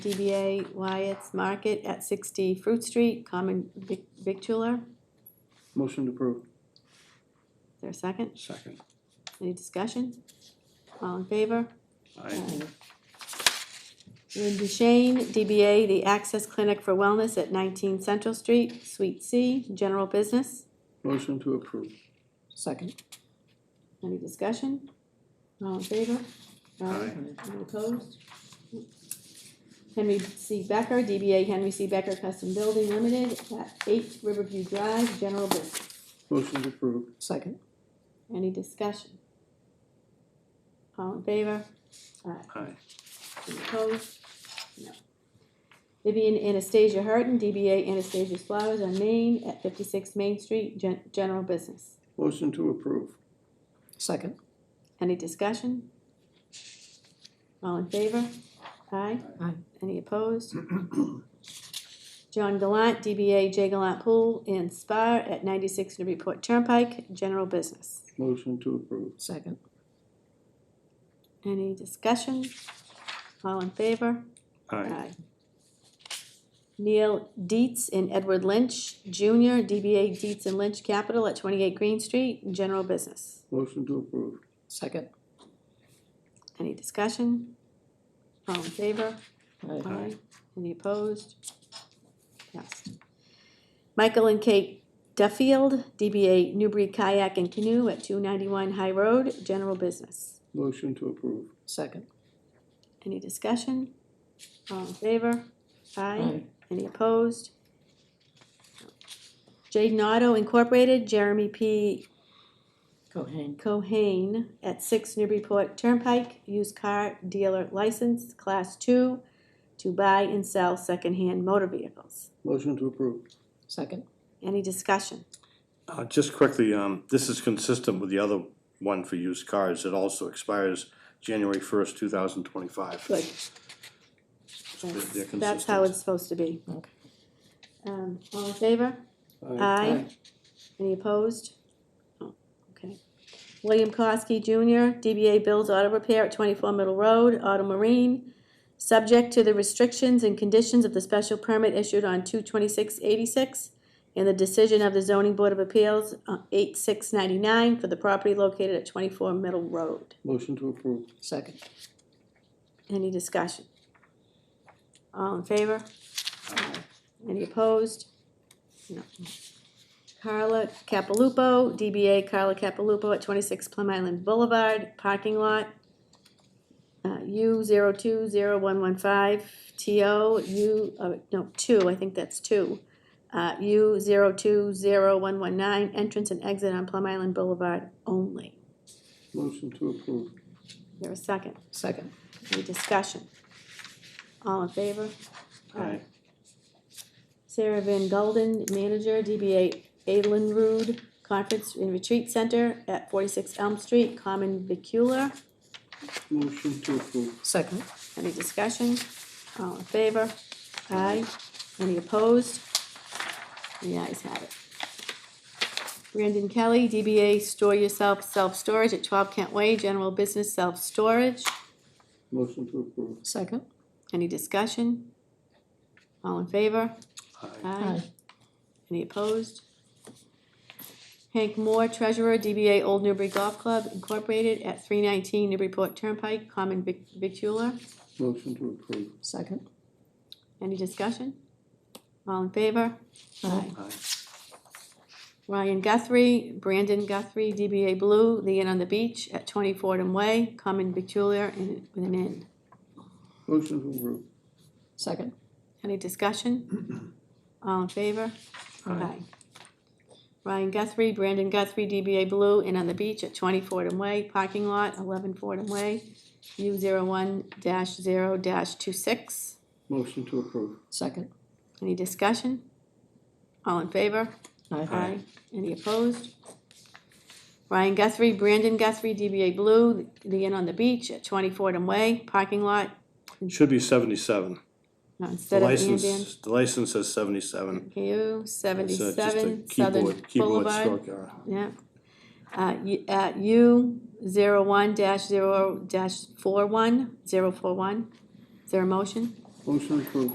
DBA Wyatt's Market at 60 Fruit Street, common vic- victular. Is Motion to approve. there a second? Second. Any discussion? All in favor? Aye. Lynn Duchesne, DBA The Access Clinic for Wellness at 19 Central Street, Suite C, general business. Motion to approve. Second. Any discussion? All in favor? Aye. Any opposed? Henry C. Becker, DBA Henry C. Becker Custom Building Limited at 8 Riverview Drive, general business. Motion to approve. Second. Any discussion? All in favor? Aye. Any opposed? No. Vivian Anastasia Harden, DBA Anastasia's Flowers on Main at fifty-six Main Street, gen- general business. Motion to approve. Second. Any discussion? All in favor? Aye. Aye. Any opposed? John Gallant, DBA J Gallant Pool and Spa at ninety-six Newburyport Turnpike, general business. Motion to approve. Second. Any discussion? All in favor? Aye. Aye. Neil Dietz and Edward Lynch Jr., DBA Dietz and Lynch Capital at 28 Green Street, general business. Motion to approve. Second. Any discussion? All in favor? Aye. Aye. Any opposed? Yes. Michael and Kate Duffield, DBA Newbury Kayak and Canoe at 291 High Road, general business. Motion to approve. Second. Any discussion? All in favor? Aye. Any opposed? Jaden Auto Incorporated, Jeremy P. Cohen. Cohane at six Newburyport Turnpike, used car dealer license, class two, to buy and sell secondhand motor vehicles. Motion to approve. Second. Any discussion? Uh, just quickly, um, this is consistent with the other one for used cars. It also expires January first, two thousand twenty-five. Good. they're That's- That's how consistent. it's supposed to be. Okay. Um, all in favor? Aye. Any opposed? Oh, Okay. William Kosky Jr., DBA Bill's Auto Repair at 24 Middle Road, Auto Marine, subject to the restrictions and conditions of the special permit issued on 22686 and the decision of the Zoning Board of Appeals, uh, 8699, for the property located at 24 Middle Road. Motion to approve. Second. Any discussion? All in favor? Any opposed? No. Carla Capalupo, DBA Carla Capalupo at twenty-six Plum Island Boulevard, parking lot. Uh, U zero two zero one one five, TO, U, uh, no, two, I think that's two. Uh, U zero two zero one one nine, entrance and exit on Plum Island Boulevard only. Motion to approve. Is There a second? Second. Any discussion? All in favor? Aye. Sarah Van Gulden, manager, DBA Adlin Rood Conference and Retreat Center at forty-six Elm Street, common vicular. Motion to approve. Second. Any discussion? All in favor? Aye. Any opposed? The ayes have it. Brandon Kelly, DBA Store Yourself Self Storage at twelve Kent Way, general business self-storage. Motion to approve. Second. Any discussion? All in favor? Uh, Aye. Aye. Any opposed? Hank Moore, Treasurer, DBA Old Newbury Golf Club Incorporated at three nineteen Newburyport Turnpike, common vic- victular. Motion to approve. Second. Any discussion? All in favor? Aye. Aye. Ryan Guthrie, Brandon Guthrie, DBA Blue, The Inn on the Beach at twenty Fordham Way, common victular and with an inn. Motion to approve. Second. Any discussion? All in favor? Aye. Ryan Guthrie, Brandon Guthrie, DBA Blue, and on the beach at twenty Fordham Way, parking lot, eleven Fordham Way, U zero one dash zero dash two six. Motion to approve. Second. Any discussion? All in favor? Aye. Aye. Any opposed? Ryan Guthrie, Brandon Guthrie, DBA Blue, the Inn on the Beach at twenty Fordham Way, parking lot, Should be seventy-seven. no, The instead of and in. license, the license says seventy-seven. U It's, uh, just a seventy-seven Southern keyboard- keyboard Boulevard. stroke error. Yeah. Uh, y- uh, U zero one dash zero dash four one, zero four one. Is there a motion? Motion approved.